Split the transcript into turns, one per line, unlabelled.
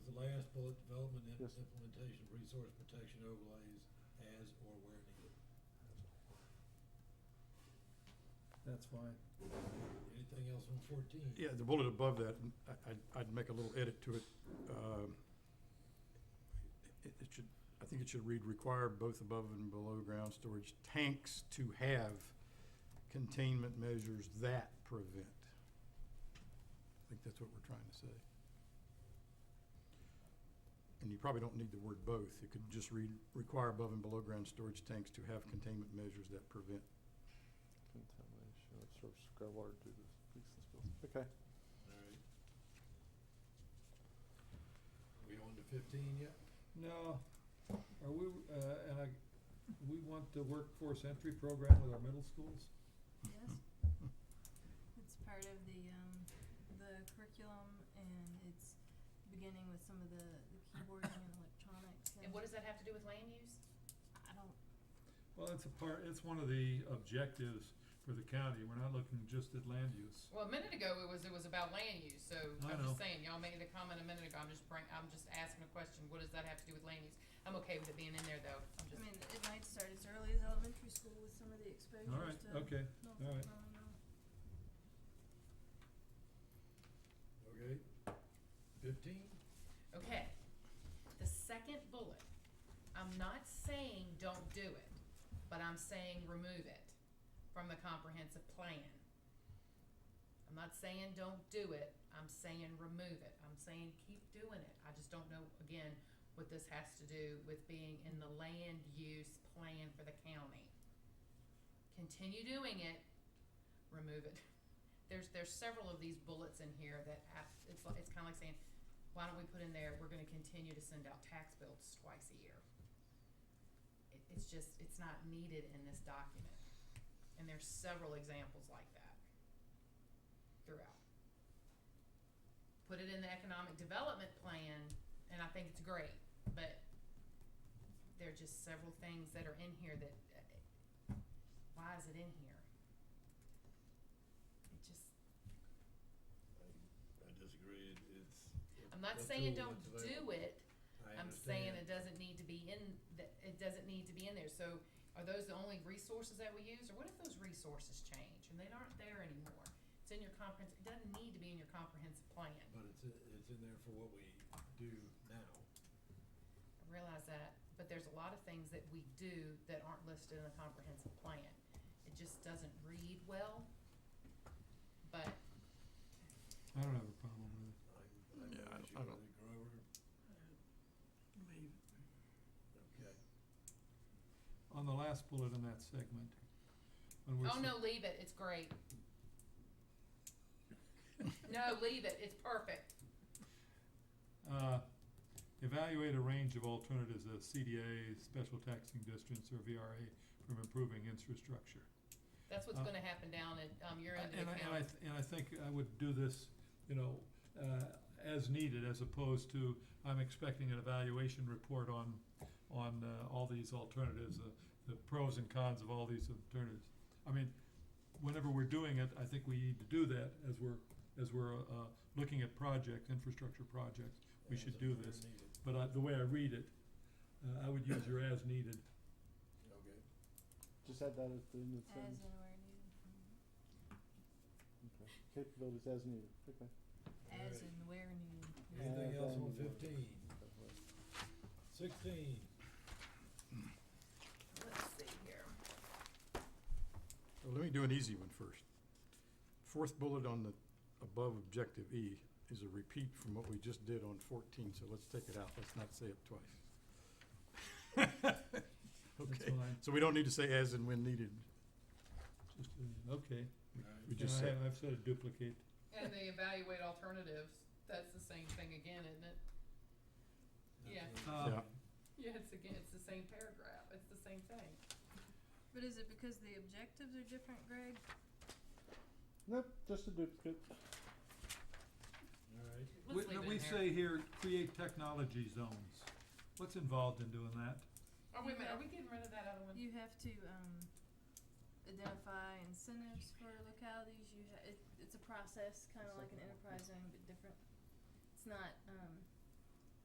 development and
Yes.
implementation of resource protection overlays as or where needed.
That's fine.
Anything else on fourteen?
Yeah, the bullet above that, n- I, I'd, I'd make a little edit to it. Um, It, it should, I think it should read require both above and below ground storage tanks to have containment measures that prevent. I think that's what we're trying to say. And you probably don't need the word both. It could just read require above and below ground storage tanks to have containment measures that prevent.
Contamination of surface groundwater due to leaks and spills. Okay.
All right. Are we on to fifteen yet?
Now, are we, uh, and I, we want the workforce entry program with our middle schools?
Yes. It's part of the, um, the curriculum and it's beginning with some of the, the keyboarding and electronics and.
And what does that have to do with land use?
I don't,
Well, it's a part, it's one of the objectives for the county. We're not looking just at land use.
Well, a minute ago, it was, it was about land use, so
I
I'm
know.
just saying, y'all made a comment a minute ago, I'm just bring, I'm just asking a question, what does that have to do with land use? I'm okay with it being in there though, I'm
I
just,
mean, it might start as early as elementary school with some of the exposures to.
All right, okay.
No,
all right.
no, no.
Okay. Fifteen?
okay. The second bullet, I'm not saying don't do it, but I'm saying remove it from the comprehensive plan. I'm not saying don't do it, I'm saying remove it, I'm saying keep doing it, I just don't know, again, what this has to do with being in the land use plan for the county. Continue doing it, remove it. There's, there's several of these bullets in here that have, it's, like- it's kinda like saying, why don't we put in there, we're gonna continue to send out tax bills twice a year. It, it's just, it's not needed in this document, and there's several examples like that throughout. Put it in the economic development plan, and I think it's great, but there are just several things that are in here that, uh, why is it in here? It just,
I disagree, It- it's.
I'm not
that's
saying
all
don't
that's available.
do it,
I
I'm saying
understand.
it doesn't need to be in, th- it doesn't need to be in there, so are those the only resources that we use, or what if those resources change and they aren't there anymore? It's in your comprehensive, it doesn't need to be in your comprehensive plan, I
But it's, i- it's in there for what we do now.
realize that, but there's a lot of things that we do that aren't listed in the comprehensive plan. It just doesn't read well, but
I don't have a problem with it.
I'm, I'm
Yeah, I
not
don't-
sure
I
whether Grover,
Leave.
okay.
On the last bullet in that segment, when we're.
Oh,
s-
no, leave it, it's great. No, leave it, it's perfect.
Uh, evaluate a range of alternatives uh, as CDA, special taxing districts, or VRA from improving infrastructure.
That's what's
Uh,
gonna happen down at, um, your end of the
And I,
county.
and I, th- and I think I would do this, you know, uh, as needed, as opposed to, I'm expecting an evaluation report on, on, uh, all these alternatives, uh, the pros and cons of all these alternatives. I mean, whenever we're doing it, I think we need to do that as we're, as we're, uh, looking at projects, infrastructure projects. We
As
should
and
do
where
this.
needed.
But I, the way I read it, uh, I would use your as needed.
Okay,
Just add that at the end of the
As
sentence.
and where needed.
Okay. Capabilities as needed. Okay.
As
Alright.
and where needed.
anything
As
else on
and where.
fifteen? Sixteen,
Let's see here.
Well, let me do an easy one first. Fourth bullet on the above objective E is a repeat from what we just did on fourteen, so let's take it out. Let's not say it twice.
That's
Okay,
fine,
so we don't need to say as and when needed.
just, uh, okay.
alright.
We
And
just
I
said,
have- I've said duplicate.
And they evaluate alternatives. That's the same thing again, isn't it? Yeah.
That's
Uh,
a-
yeah,
Yeah, it's again, it's the same paragraph. It's the same thing.
But is it because the objectives are different, Greg?
Nope, just a duplicate.
Alright,
We, we say here, create technology zones. What's involved in doing that?
Oh, wait a minute, are we getting rid of that other one?
You have to, um, identify incentives for localities, you ha- it, it's a process, kinda like an enterprise zone, but different. It's not, um,